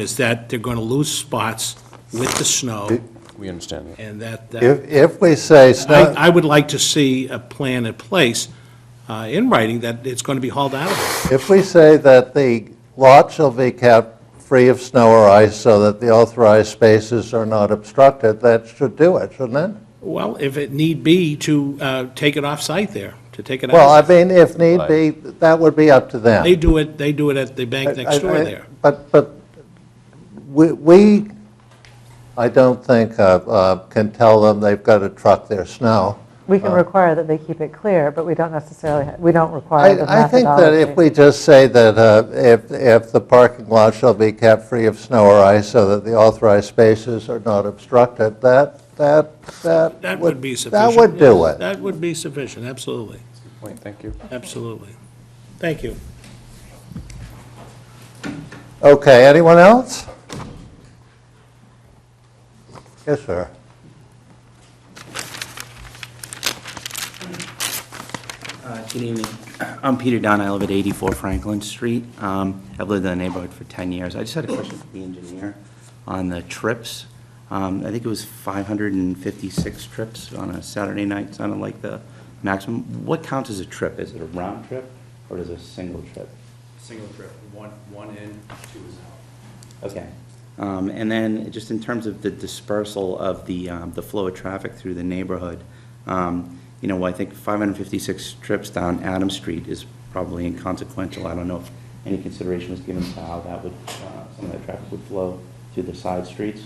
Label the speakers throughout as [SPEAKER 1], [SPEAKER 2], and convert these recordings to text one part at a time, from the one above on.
[SPEAKER 1] is that they're going to lose spots with the snow,
[SPEAKER 2] We understand that.
[SPEAKER 1] and that, that-
[SPEAKER 3] If, uh, if we say snow,
[SPEAKER 1] I, I would like to see a plan in place uh, in writing that it's going to be hauled out of there.
[SPEAKER 3] if we say that the lot shall be kept free of snow or ice so that the authorized spaces are not obstructed, that should do it, shouldn't it?
[SPEAKER 1] Well, if it need be, to uh, take it off-site there, to take it
[SPEAKER 3] Well, I
[SPEAKER 1] out.
[SPEAKER 3] mean, if need be, that would be up to them.
[SPEAKER 1] They do it, they do it at the bank
[SPEAKER 3] I-
[SPEAKER 1] next door
[SPEAKER 3] I-
[SPEAKER 1] there.
[SPEAKER 3] But, but we- we, I don't think, uh, uh, can tell them they've got to truck their snow.
[SPEAKER 4] We can require that they keep it clear, but we don't necessarily, ha- we don't require the
[SPEAKER 3] I I think that if
[SPEAKER 4] methodology.
[SPEAKER 3] we just say that uh, if, if the parking lot shall be kept free of snow or ice so that the authorized spaces are not obstructed, that, that, that.
[SPEAKER 1] That would be sufficient.
[SPEAKER 3] That would do
[SPEAKER 1] Yes,
[SPEAKER 3] it.
[SPEAKER 1] That would be sufficient, absolutely,
[SPEAKER 2] Point, thank you.
[SPEAKER 1] absolutely. Thank you.
[SPEAKER 3] Okay, anyone else? Yes, sir.
[SPEAKER 5] Uh, Good evening. I'm Peter Dunn. I live at 84 Franklin Street. Um, I've lived in the neighborhood for 10 years. I just had a question for the engineer on the trips. Um, I think it was 556 trips on a Saturday night, sounded like the maximum. What counts as a trip? Is it a round trip or is it a single trip?
[SPEAKER 6] single trip, one, one in, two is out.
[SPEAKER 5] Okay. Um, And then, just in terms of the dispersal of the, um, the flow of traffic through the neighborhood, um, you know, I think 556 trips down Adams Street is probably inconsequential. I don't know if any consideration was given to how that would, uh, some of that traffic would flow through the side streets,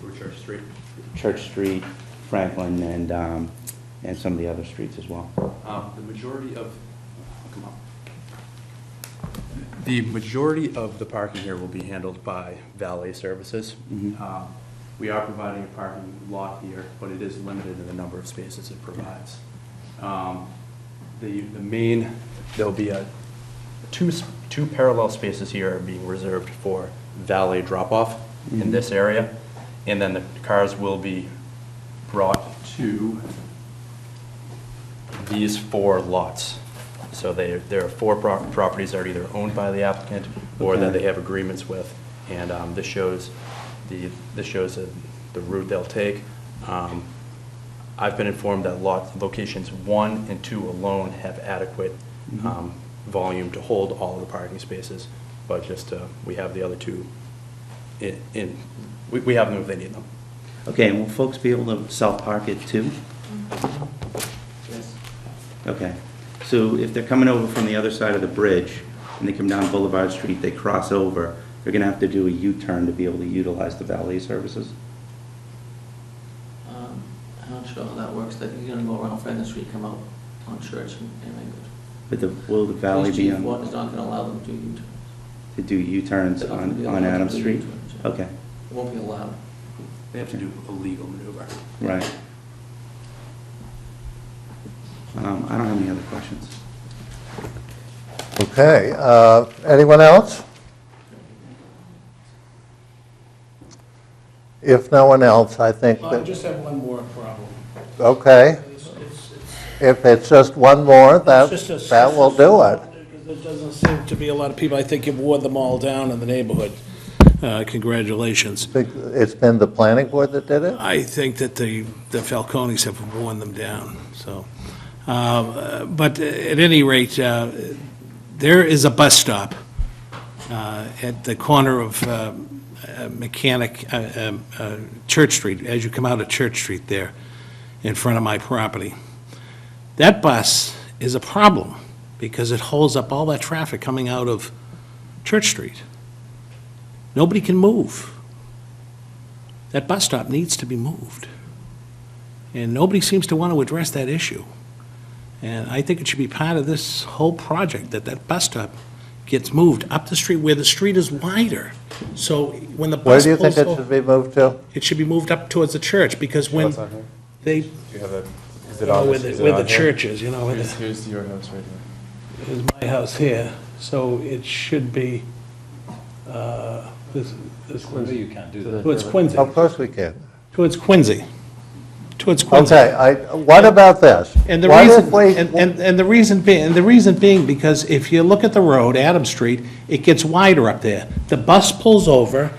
[SPEAKER 6] Through Church Street.
[SPEAKER 5] Church Street, Franklin, and, um, and some of the other streets as well.
[SPEAKER 6] Um, The majority of, come on. The majority of the parking here will be handled by valet services. Um, We are providing a parking lot here, but it is limited in the number of spaces it provides. Um, The, the main, there'll be a, two, s- two parallel spaces here are being reserved for valet drop-off in this area, and then the cars will be brought to these four lots. So they, there are four pro- properties that are either owned by the applicant or that
[SPEAKER 5] Okay.
[SPEAKER 6] they have agreements with. And um, this shows the, this shows the- the route they'll take. Um, I've been informed that lot, locations one and two alone have adequate um, volume to hold all of the parking spaces. But just, uh, we have the other two in- in, we- we have them if they need them.
[SPEAKER 5] Okay, and will folks be able to self-park it too? Yes. Okay, so if they're coming over from the other side of the bridge, and they come down Boulevard Street, they cross over, they're gonna have to do a U-turn to be able to utilize the valet services?
[SPEAKER 7] Um, I'm not sure how that works, that you're gonna go around Franklin Street, come out on Church and and Language.
[SPEAKER 5] But the, will the valet
[SPEAKER 7] Police
[SPEAKER 5] be
[SPEAKER 7] chief
[SPEAKER 5] on,
[SPEAKER 7] wa- is not gonna allow them to U-turn.
[SPEAKER 5] to do U-turns
[SPEAKER 7] They're not gonna be
[SPEAKER 5] on,
[SPEAKER 7] allowed
[SPEAKER 5] on
[SPEAKER 7] to
[SPEAKER 5] Adams
[SPEAKER 7] do
[SPEAKER 5] Street?
[SPEAKER 7] U-turns, yeah.
[SPEAKER 5] Okay,
[SPEAKER 7] It won't be allowed.
[SPEAKER 6] They have to do a legal maneuver.
[SPEAKER 5] right. Um, I don't have any other questions.
[SPEAKER 3] Okay, uh, anyone else? If no one else, I think that.
[SPEAKER 1] have one more problem.
[SPEAKER 3] Okay, if it's just one more, that,
[SPEAKER 8] It's just a-
[SPEAKER 3] that will do it.
[SPEAKER 8] There doesn't seem to be a lot of people, I think you've wore them all down in the neighborhood.
[SPEAKER 1] Uh, Congratulations.
[SPEAKER 3] It's been the planning board that did it?
[SPEAKER 1] I think that the, the Falcones have worn them down, so. Um, uh, But at any rate, uh, there is a bus stop uh, at the corner of um, uh, Mechanic, uh, um, uh, Church Street, as you come out of Church Street there, in front of my property. That bus is a problem, because it holds up all that traffic coming out of Church Street. Nobody can move that bus stop needs to be moved. And nobody seems to want to address that issue. And I think it should be part of this whole project, that that bus stop gets moved up the street where the street is wider. So when the
[SPEAKER 3] Where
[SPEAKER 1] bus
[SPEAKER 3] do you think
[SPEAKER 1] pulls
[SPEAKER 3] it should
[SPEAKER 1] over,
[SPEAKER 3] be moved to?
[SPEAKER 1] it should be moved up towards the church, because when
[SPEAKER 2] That's not here.
[SPEAKER 1] they, Oh,
[SPEAKER 2] Do you have a, is it on
[SPEAKER 8] Where
[SPEAKER 2] this?
[SPEAKER 8] the
[SPEAKER 2] is it
[SPEAKER 8] where
[SPEAKER 2] on
[SPEAKER 8] the
[SPEAKER 2] here?
[SPEAKER 8] church is, you know, where
[SPEAKER 2] Here's,
[SPEAKER 8] the-
[SPEAKER 2] here's your house right here.
[SPEAKER 8] is my house here, so it should be, uh, this, this. Quincy, you can't do that. Towards Quincy,
[SPEAKER 3] Of course we can.
[SPEAKER 1] towards Quincy, towards Quincy.
[SPEAKER 3] Okay, I, what about this?
[SPEAKER 1] And the
[SPEAKER 3] What if
[SPEAKER 1] reason,
[SPEAKER 3] we-
[SPEAKER 1] and, and- and the reason being, and the reason being, because if you look at the road, Adams Street, it gets wider up there. The bus pulls over,